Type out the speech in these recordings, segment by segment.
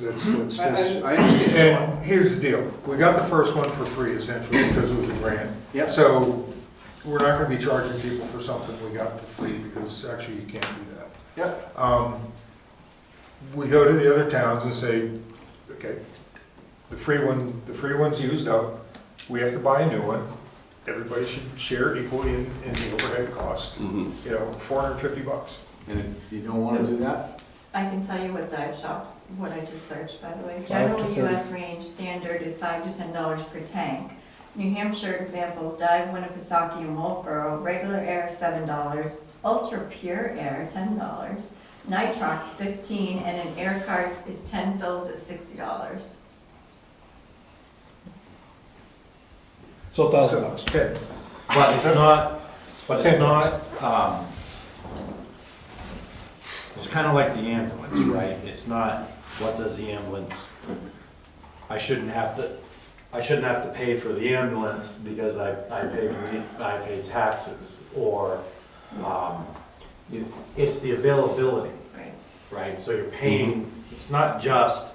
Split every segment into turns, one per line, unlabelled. That's, that's
I- I-
just.
I understand.
And here's the deal, we got the first one for free essentially because it was a grant.
Yep.
So we're not gonna be charging people for something we got for free because actually you can't do that.
Yep,
Um, We go to the other towns and say, okay, the free one, the free one's used up, we have to buy a new one. Everybody should share equally in, in the overhead cost,
Mhm.
you know, four hundred and fifty bucks.
and if you don't wanna do that,
I can tell you what dive shops, what I just searched, by the way.
to
General
30.
US range standard is five to ten dollars per tank. New Hampshire examples, dive Winnipesaukee and Wolfboro, regular air seven dollars, ultra pure air ten dollars, nitrox fifteen, and an air card is ten fills at sixty dollars.
So a thousand
So,
bucks.
okay,
But it's not, but
Ten
it's not, um, it's kind of like the ambulance, right? It's not, what does the ambulance, I shouldn't have to, I shouldn't have to pay for the ambulance because I, I pay for the, I pay taxes, or, um, you- it's the availability,
Right.
right? So you're paying, it's not just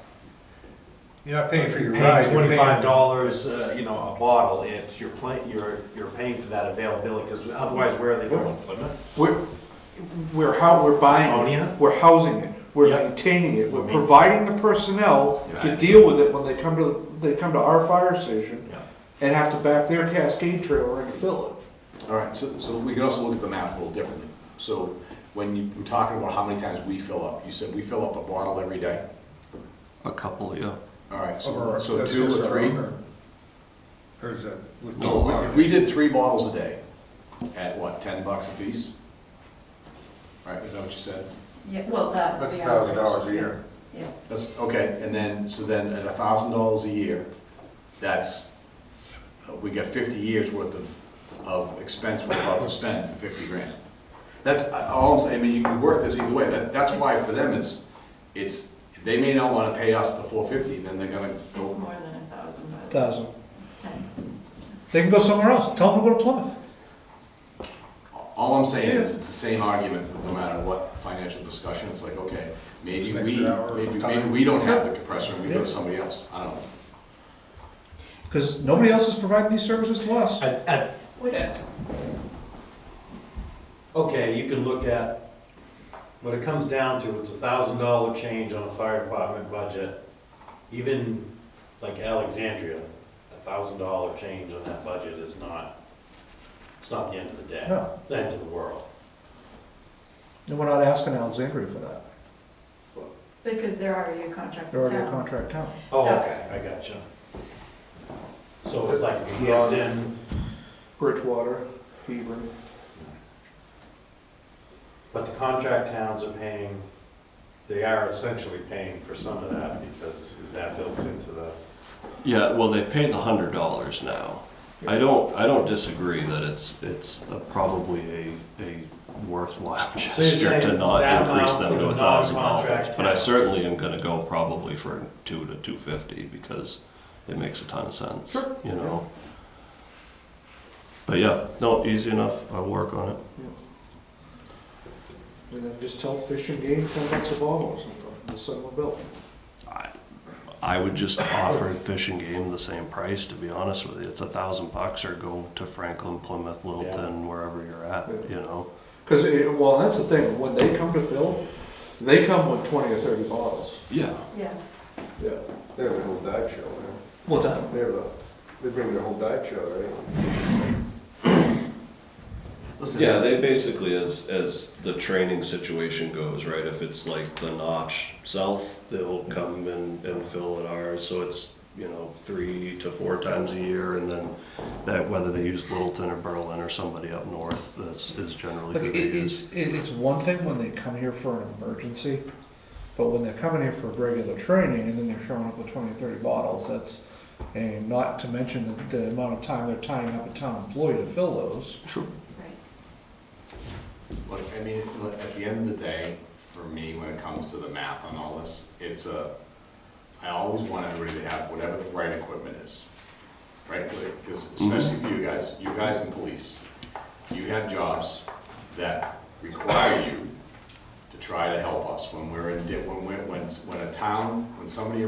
you're not Mm-hmm. paying for your
paying
ride. you're
twenty-five dollars, uh, you know, a bottle, it's, you're playing, you're, you're paying for that availability, because otherwise, where are they going, Plymouth?
We're, we're how, we're buying it,
Ionia?
we're housing it, we're
Yeah.
maintaining it, we're
We're main-
providing the personnel to
Exactly.
deal with it when they come to, they come to our fire station
Yeah.
and have to back their cascade trailer in to fill
All right, so, so we can also look at the map a little differently. So when you were talking about how many times we fill up, you said we fill up a bottle every day?
A couple, yeah.
All right, so,
Over,
so
that's
two
just
or
our
three?
own, or? Or is that? with-
No, if we- if we did three bottles a day, at what, ten bucks a piece? Right, is that what you said?
Yeah, well, that's.
That's
the
thousand dollars a
average.
year.
Yeah,
That's, okay, and then, so then at a thousand dollars a year, that's, uh, we got fifty years worth of, of expense we're about to spend for fifty grand. That's, I- all I'm saying, I mean, you can work this either way, that, that's why for them, it's, it's, they may not wanna pay us the four fifty, then they're gonna
it's
go,
more than a thousand,
it.
but
Thousand.
it's ten.
They can go somewhere else. Tell them to go to Plymouth.
all I'm saying is, it's the same argument, no matter what financial discussion, it's like, okay, maybe
Just an
we,
extra hour of
maybe, maybe
time.
we don't have the compressor, and we go to somebody else, I don't know.
Because nobody else is providing these services to us.
I- I-
Would-
Okay, you can look at, what it comes down to, it's a thousand dollar change on a fire department budget. Even like Alexandria, a thousand dollar change on that budget is not, it's not the end of the day.
No.
The end of the world.
And we're not asking Alexandria for that.
Because they're already a contract.
They're already a
town.
contract town.
Oh,
So-
okay, I gotcha. So it's like Hampton,
Bridgewater, Beaver.
but the contract towns are paying, they are essentially paying for some of that because is that built into the?
Yeah, well, they pay the hundred dollars now. I don't, I don't disagree that it's, it's a- probably a, a worthwhile
you're
gesture to
saying that
not
amount
increase them
for
to
the
a thousand dollars.
non-contract
But I
towns.
certainly am gonna go probably for two to two fifty because it makes a ton of sense. Sure. You know? But yeah, no, easy enough. I'll work on it.
And then just tell Fish and Game, ten bucks a bottle or something, and send them a bill.
I would just offer fishing game the same price, to be honest with you. It's a thousand bucks or go to Franklin, Plymouth, Littleton, wherever you're at,
Yeah.
you know?
Because, well, that's the thing, when they come to fill, they come with twenty or thirty bottles.
Yeah.
Yeah.
Yeah.
They have a whole dive show, right?
What's that?
They have a, they bring their whole dive show, right?
Listen,
Yeah, they basically, as, as the training situation goes, right, if it's like the notch south, they'll come and, and fill at ours, so it's, you know, three to four times a year, and then that, whether they use Littleton or Berlin or somebody up north, that's, is generally who
Look, it,
they use.
it's, it, it's one thing when they come here for an emergency, but when they're coming here for regular training and then they're showing up with 20 or 30 bottles, that's, and not to mention the, the amount of time they're tying up a town employee to fill those.
Sure.
Right.
Look, I mean, look, at the end of the day, for me, when it comes to the math on all this, it's a, I always want everybody to have whatever the right equipment is. Right, because especially for you guys, you guys in police, you have jobs that require you to try to help us when we're in, di- when we're, when, when a town, when somebody